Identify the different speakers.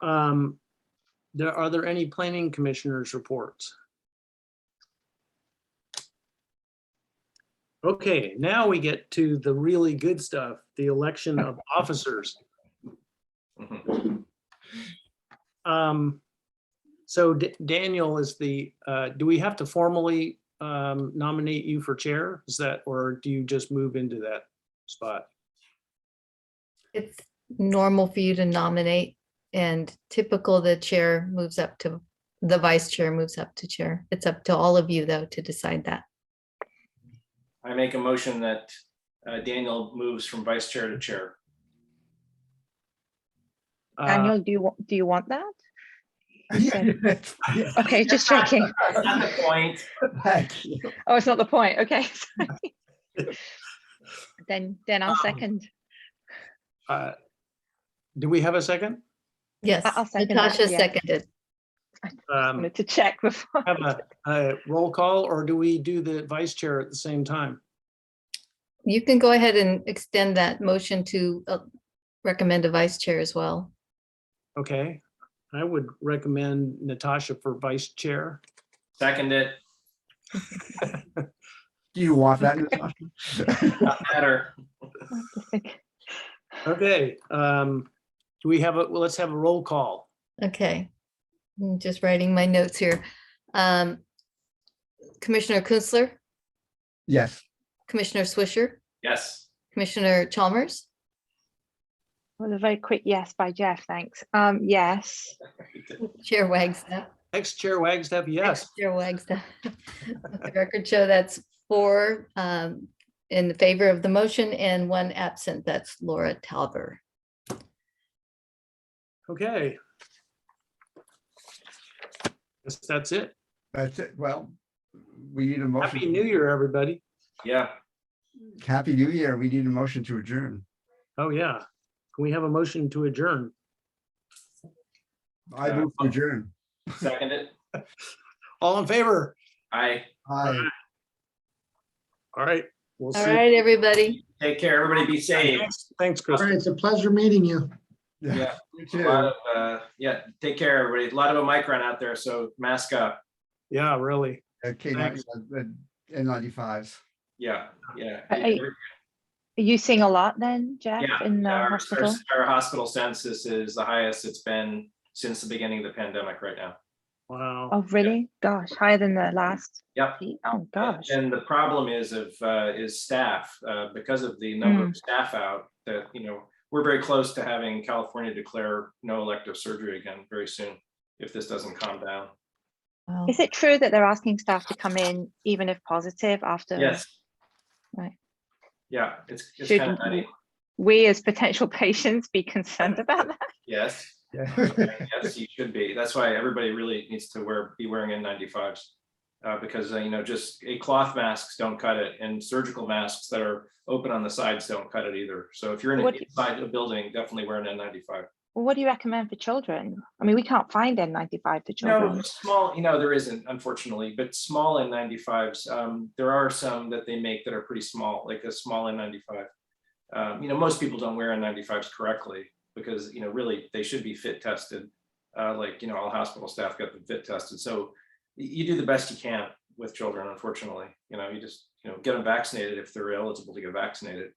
Speaker 1: Um, there, are there any planning commissioners' reports? Okay, now we get to the really good stuff, the election of officers. Um, so D- Daniel is the, uh, do we have to formally, um, nominate you for chair? Is that, or do you just move into that spot?
Speaker 2: It's normal for you to nominate and typical, the chair moves up to, the vice chair moves up to chair. It's up to all of you though to decide that.
Speaker 3: I make a motion that uh, Daniel moves from vice chair to chair.
Speaker 1: Uh,
Speaker 4: Daniel, do you, wa- do you want that?
Speaker 5: Yeah,
Speaker 4: Okay, just checking.
Speaker 3: Not the point.
Speaker 5: thank you.
Speaker 4: Oh, it's not the point. Okay. sorry. Then, then I'll
Speaker 1: Um,
Speaker 4: second.
Speaker 1: uh, Do we have a second?
Speaker 2: Yes,
Speaker 4: I'll second that,
Speaker 2: Natasha
Speaker 4: yeah.
Speaker 2: seconded.
Speaker 1: Um,
Speaker 4: Wanted to check before.
Speaker 1: have a, a roll call or do we do the vice chair at the same time?
Speaker 2: You can go ahead and extend that motion to uh, recommend a vice chair as well.
Speaker 1: Okay, I would recommend Natasha for vice chair.
Speaker 3: Second it,
Speaker 5: Do you want that? Natasha?
Speaker 3: not matter.
Speaker 1: Okay, um, do we have a, well, let's have a roll call.
Speaker 2: Okay. I'm just writing my notes here. Um, Commissioner Kunstler,
Speaker 5: Yes,
Speaker 2: Commissioner Swisher,
Speaker 3: Yes,
Speaker 2: Commissioner Chalmers,
Speaker 4: Well, a very quick yes by Jeff, thanks. Um, yes.
Speaker 2: Chair Wagstaff.
Speaker 1: Ex-chair Wagstaff, yes.
Speaker 2: Chair Wagstaff. Let the Record show that's four um, in favor of the motion and one absent. That's Laura Talber.
Speaker 1: Okay. Guess That's it.
Speaker 5: that's it. Well, we need a motion.
Speaker 1: Happy New Year, everybody.
Speaker 3: yeah.
Speaker 5: Happy New Year. We need a motion to adjourn.
Speaker 1: Oh, yeah. Can we have a motion to adjourn?
Speaker 5: I
Speaker 3: Uh,
Speaker 5: move to adjourn.
Speaker 3: Second it.
Speaker 1: All in favor?
Speaker 3: I
Speaker 5: Aye.
Speaker 1: All right. We'll
Speaker 2: All
Speaker 1: see.
Speaker 2: right, everybody.
Speaker 3: take care. Everybody be safe.
Speaker 1: Thanks- Thanks,
Speaker 6: All
Speaker 1: Chris.
Speaker 6: right, it's a pleasure meeting you.
Speaker 5: Yeah,
Speaker 3: Yeah.
Speaker 5: you
Speaker 3: A
Speaker 5: too.
Speaker 3: lot of, uh, yeah, take care, everybody. A lot of Omicron out there, so mask up.
Speaker 1: Yeah, really.
Speaker 5: Okay, uh,
Speaker 1: Thanks.
Speaker 5: N95s.
Speaker 3: Yeah, yeah.
Speaker 4: Uh, I- Are you seeing a lot then, Jeff,
Speaker 3: Yeah,
Speaker 4: in the
Speaker 3: Our, our
Speaker 4: hospital?
Speaker 3: our hospital census is the highest it's been since the beginning of the pandemic right now.
Speaker 1: Wow.
Speaker 4: Oh, really? Gosh, higher than the last?
Speaker 3: Yep.
Speaker 4: peak? Oh,
Speaker 3: And-
Speaker 4: gosh.
Speaker 3: And the problem is of, uh, is staff, uh, because of the number
Speaker 4: Mm.
Speaker 3: of staff out that, you know, we're very close to having California declare no elective surgery again very soon, if this doesn't calm down.
Speaker 2: Wow.
Speaker 4: Is it true that they're asking staff to come in even if positive after?
Speaker 3: Yes.
Speaker 4: Right.
Speaker 3: Yeah, it's, it's
Speaker 4: Should
Speaker 3: kind of nutty.
Speaker 4: We as potential patients be concerned about that?
Speaker 3: Yes,
Speaker 5: Yeah.
Speaker 3: yes, you should be. That's why everybody really needs to wear, be wearing N95s. Uh, because, uh, you know, just a cloth masks don't cut it and surgical masks that are open on the sides don't cut it either. So if you're in,
Speaker 4: What-
Speaker 3: a- inside a building, definitely wear an N95.
Speaker 4: Well, What do you recommend for children? I mean, we can't find N95 for
Speaker 3: No,
Speaker 4: children.
Speaker 3: small, you know, there isn't unfortunately, but small N95s, um, there are some that they make that are pretty small, like a small N95. Um, you know, most people don't wear N95s correctly because, you know, really they should be fit tested. Uh, like, you know, all hospital staff get them fit tested. So y- you do the best you can with children, unfortunately. You know, you just, you know, get them vaccinated if they're eligible to get vaccinated.